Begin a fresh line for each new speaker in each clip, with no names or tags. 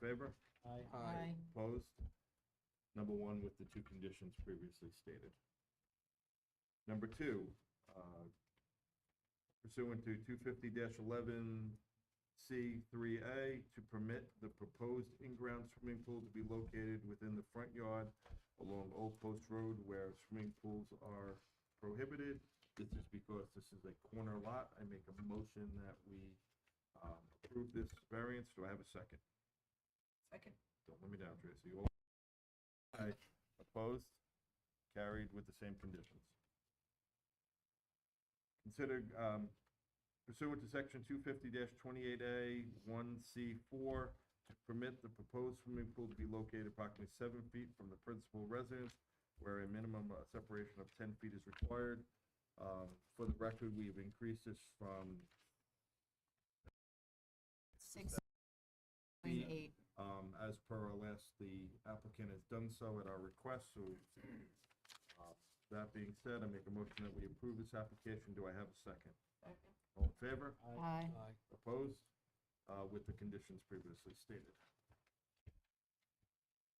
favor?
Aye.
Aye.
Opposed? Number one with the two conditions previously stated. Number two, uh, pursuant to two fifty eleven C three A, to permit the proposed in-ground swimming pool to be located within the front yard along Old Post Road where swimming pools are prohibited. This is because this is a corner lot. I make a motion that we um, approve this variance. Do I have a second?
Second.
Don't let me down, Tracy. All- Aye. Opposed? Carried with the same conditions. Consider um, pursuant to section two fifty twenty-eight A, one C four, to permit the proposed swimming pool to be located approximately seven feet from the principal residence, where a minimum uh, separation of ten feet is required. Um, For the record, we've increased this from
Six.
Nine,
Nine, eight.
Um, as per our last, the applicant has done so at our request, so, uh, that being said, I make a motion that we approve this application. Do I have a second? All in favor?
Aye.
Opposed? Uh, with the conditions previously stated.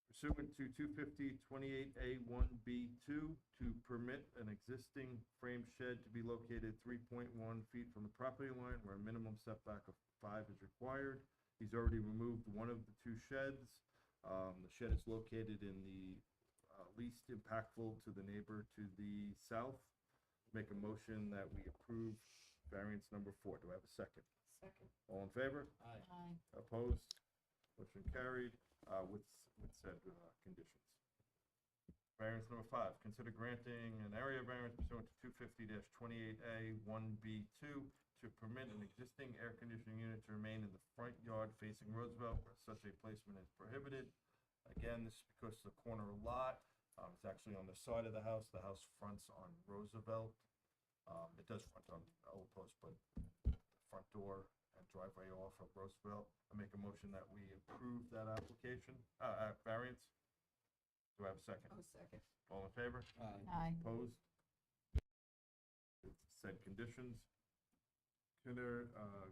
Pursuant to two fifty twenty-eight A one B two, to permit an existing frame shed to be located three point one feet from the property line where a minimum setback of five is required. He's already removed one of the two sheds. Um, the shed is located in the, uh, least impactful to the neighbor to the south. Make a motion that we approve variance number four. Do I have a second?
Oh, Second.
All in favor?
Aye.
Aye.
Opposed? Motion carried uh, with, with said uh, conditions. Variance number five, consider granting an area variance pursuant to two fifty twenty-eight A one B two to permit an existing air conditioning unit to remain in the front yard facing Roosevelt where such a placement is prohibited. Again, this is because the corner lot, um, it's actually on the side of the house. The house fronts on Roosevelt. Um, It does front on Old Post, but front door and driveway off of Roosevelt. I make a motion that we approve that application, uh, uh, variance. Do I have a second?
Oh, second.
All in favor?
Aye.
Aye.
Opposed? With Said conditions. Consider, uh,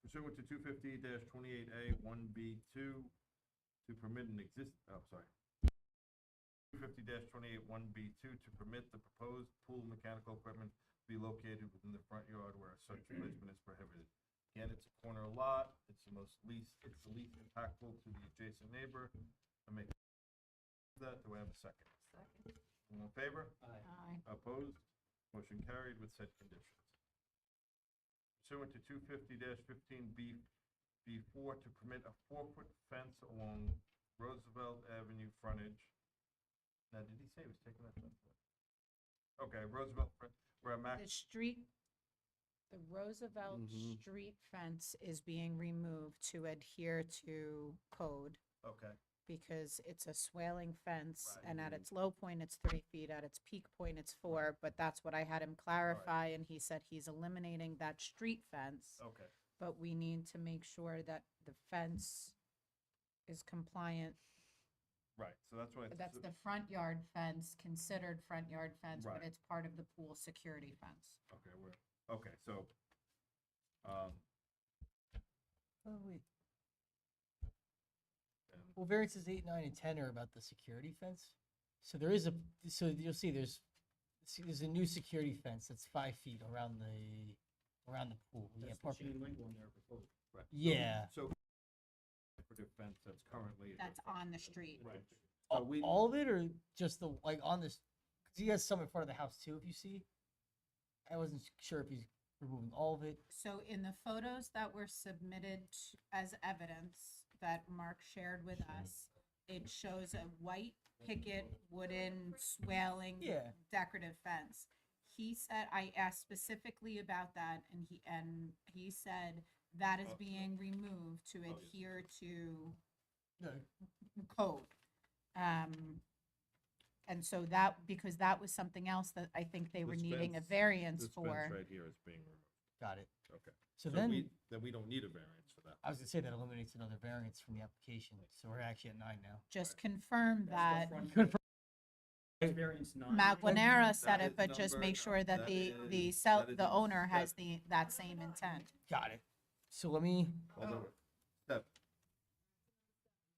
pursuant to two fifty twenty-eight A one B two to permit an exist, oh, sorry. Two fifty twenty-eight one B two to permit the proposed pool mechanical equipment to be located within the front yard where such placement is prohibited. Again, it's a corner lot, it's the most least, it's the least impactful to the adjacent neighbor. I make that, do I have a second?
Second.
All in favor?
Aye.
Aye.
Opposed? Motion carried with said conditions. Pursuant to two fifty fifteen B, B four to permit a four-foot fence along Roosevelt Avenue frontage. Now, did he say he was taking that fence? away? Okay, Roosevelt, fron- where a
The
max,
street, the Roosevelt
Mhm.
Street fence is being removed to adhere to code
okay,
because it's a swaling fence
Right.
and at its low point, it's three feet, at its peak point, it's four, but that's what I had him clarify and he said he's eliminating that street fence.
okay,
but we need to make sure that the fence is compliant.
right, so that's why. it's-
That's the front yard fence, considered front yard fence, but
Right.
it's part of the pool security fence.
Okay, where, okay, so, um,
Oh, wait.
and-
Well, variances eight, nine, and ten are about the security fence. So there is a, so you'll see there's, see, there's a new security fence that's five feet around the, around the pool. Yeah, park-
right, so-
Yeah.
So, for the fence that's currently.
That's on the street.
Right.
a-
So we-
All of it or just the, like, on this, cause he has some in front of the house too, if you see. I wasn't s- sure if he's removing all of it.
So in the photos that were submitted t- as evidence that Mark shared with us, it shows a white picket wooden swaling
Yeah.
decorative fence. He said, I asked specifically about that and he, and he said that is
Oh.
being removed to
yeah.
adhere to
No,
code. Um, and so that, because that was something else that I think they were
This
needing a
fence-
variance
This fence
for.
right here is being removed,
got it.
okay. So
So then,
we, then we don't need a variance for that.
I was gonna say that eliminates another variance from the application, so we're actually at nine now.
Just confirm that.
Variance nine.
Matt Guanera said
That
it,
is
but just
number-
make sure that
that
the, the
is-
cell,
that is
the
in
owner has
step.
the, that same intent.
Got it. So let me,
Although, step,